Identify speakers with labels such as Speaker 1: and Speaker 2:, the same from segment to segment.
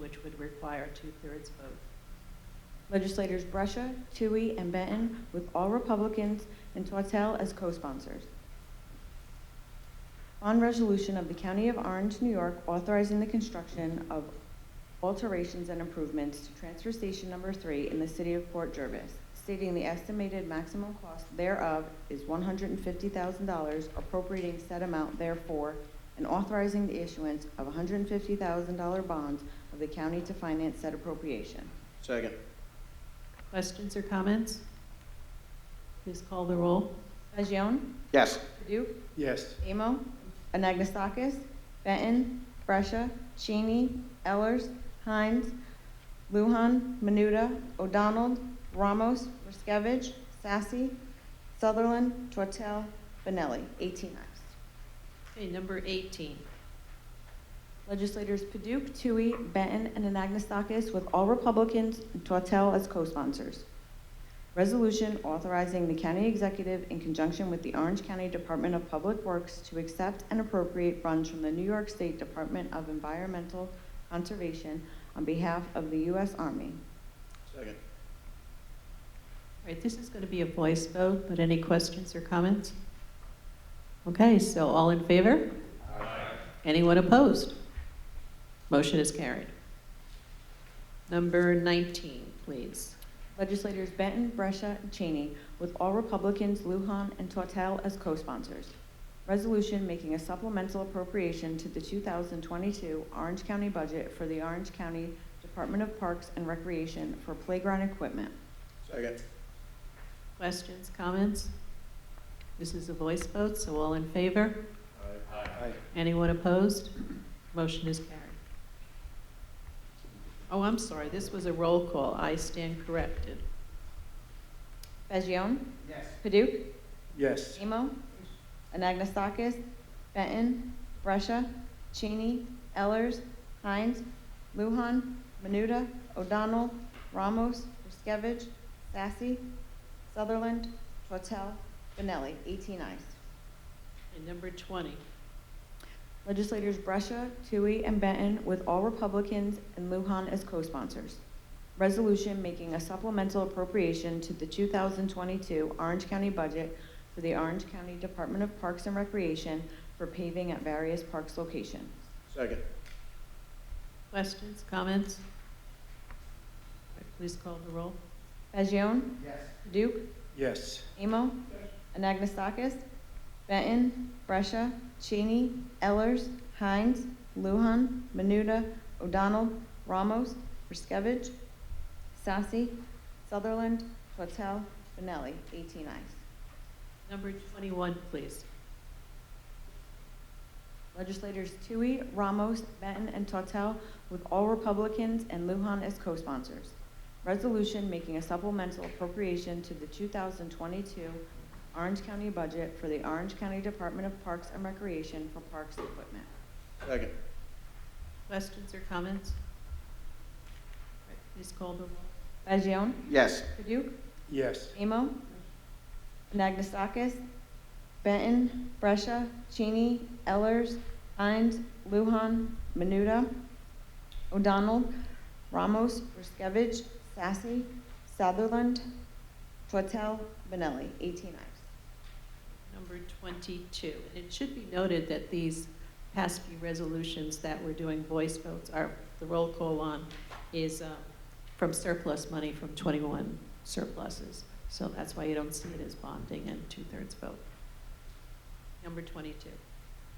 Speaker 1: which would require a two-thirds vote.
Speaker 2: Legislators Brescia, Tui, and Benton, with all Republicans, and Tortel as co-sponsors. Bond resolution of the County of Orange, New York, authorizing the construction of alterations and improvements to Transfer Station Number Three in the city of Port Jervis, stating the estimated maximum cost thereof is one hundred and fifty thousand dollars, appropriating said amount therefore, and authorizing the issuance of a hundred and fifty thousand dollar bonds of the county to finance said appropriation.
Speaker 3: Second.
Speaker 1: Questions or comments? Please call the roll.
Speaker 2: Fagion?
Speaker 3: Yes.
Speaker 2: Duke?
Speaker 3: Yes.
Speaker 2: Amo, Anagnestakis, Benton, Brescia, Cheney, Ellers, Hines, Luhan, Menuda, O'Donnell, Ramos, Riskevich, Sassy, Sutherland, Tortel, Benelli, 18 ayes.
Speaker 1: Okay, number 18.
Speaker 2: Legislators Paduk, Tui, Benton, and Anagnestakis, with all Republicans, and Tortel as co-sponsors. Resolution authorizing the county executive in conjunction with the Orange County Department of Public Works to accept and appropriate funds from the New York State Department of Environmental Conservation on behalf of the U.S. Army.
Speaker 3: Second.
Speaker 1: All right, this is going to be a voice vote, but any questions or comments? Okay, so all in favor? Anyone opposed? Motion is carried. Number 19, please.
Speaker 2: Legislators Benton, Brescia, and Cheney, with all Republicans, Lujan, and Tortel as co-sponsors. Resolution making a supplemental appropriation to the 2022 Orange County budget for the Orange County Department of Parks and Recreation for playground equipment.
Speaker 3: Second.
Speaker 1: Questions, comments? This is a voice vote, so all in favor?
Speaker 3: Aye.
Speaker 1: Anyone opposed? Motion is carried. Oh, I'm sorry, this was a roll call. I stand corrected.
Speaker 2: Fagion?
Speaker 3: Yes.
Speaker 2: Paduk?
Speaker 3: Yes.
Speaker 2: Amo? Anagnestakis? Benton? Brescia? Cheney? Ellers? Hines? Luhan? Menuda? O'Donnell? Ramos? Riskevich? Sassy? Sutherland? Tortel? Benelli? 18 ayes.
Speaker 1: And number 20.
Speaker 2: Legislators Brescia, Tui, and Benton, with all Republicans and Lujan as co-sponsors. Resolution making a supplemental appropriation to the 2022 Orange County budget for the Orange County Department of Parks and Recreation for paving at various parks locations.
Speaker 3: Second.
Speaker 1: Questions, comments? All right, Please call the roll.
Speaker 2: Fagion?
Speaker 3: Yes.
Speaker 2: Duke?
Speaker 3: Yes.
Speaker 2: Amo? Anagnestakis? Benton? Brescia? Cheney? Ellers? Hines? Luhan? Menuda? O'Donnell? Ramos? Riskevich? Sassy? Sutherland? Tortel? Benelli? 18 ayes.
Speaker 1: Number 21, please.
Speaker 2: Legislators Tui, Ramos, Benton, and Tortel, with all Republicans and Lujan as co-sponsors. Resolution making a supplemental appropriation to the 2022 Orange County budget for the Orange County Department of Parks and Recreation for parks equipment.
Speaker 3: Second.
Speaker 1: Questions or comments? All right, Please call the roll.
Speaker 2: Fagion?
Speaker 3: Yes.
Speaker 2: Paduk?
Speaker 3: Yes.
Speaker 2: Amo? Anagnestakis? Benton? Brescia? Cheney? Ellers? Hines? Luhan? Menuda? O'Donnell? Ramos? Ruskovich? Sassy? Sutherland? Tortel? Benelli? 18 ayes.
Speaker 1: Number 22. And it should be noted that these past few resolutions that we're doing voice votes are, the roll call on is um, from surplus money from 21 surpluses. So that's why you don't see it as bonding and two-thirds vote. Number 22.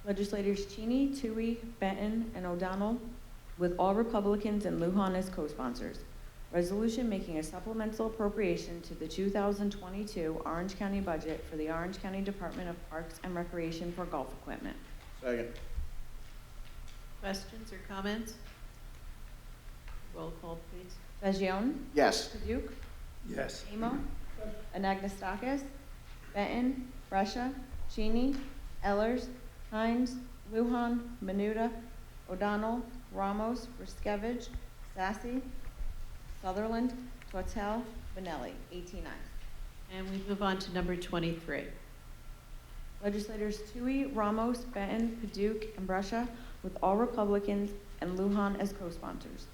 Speaker 2: Legislators Cheney, Tui, Benton, and O'Donnell, with all Republicans and Lujan as co-sponsors. Resolution making a supplemental appropriation to the 2022 Orange County budget for the Orange County Department of Parks and Recreation for golf equipment.
Speaker 3: Second.
Speaker 1: Questions or comments? Roll call, please.
Speaker 2: Fagion?
Speaker 3: Yes.
Speaker 2: Paduk?
Speaker 3: Yes.
Speaker 2: Amo? Anagnestakis? Benton? Brescia? Cheney? Ellers? Hines? Luhan? Menuda? O'Donnell? Ramos? Riskevich? Sassy? Sutherland? Tortel? Benelli? 18 ayes.
Speaker 1: And we move on to number 23.
Speaker 2: Legislators Tui, Ramos, Benton, Paduk, and Brescia, with all Republicans and Lujan as co-sponsors.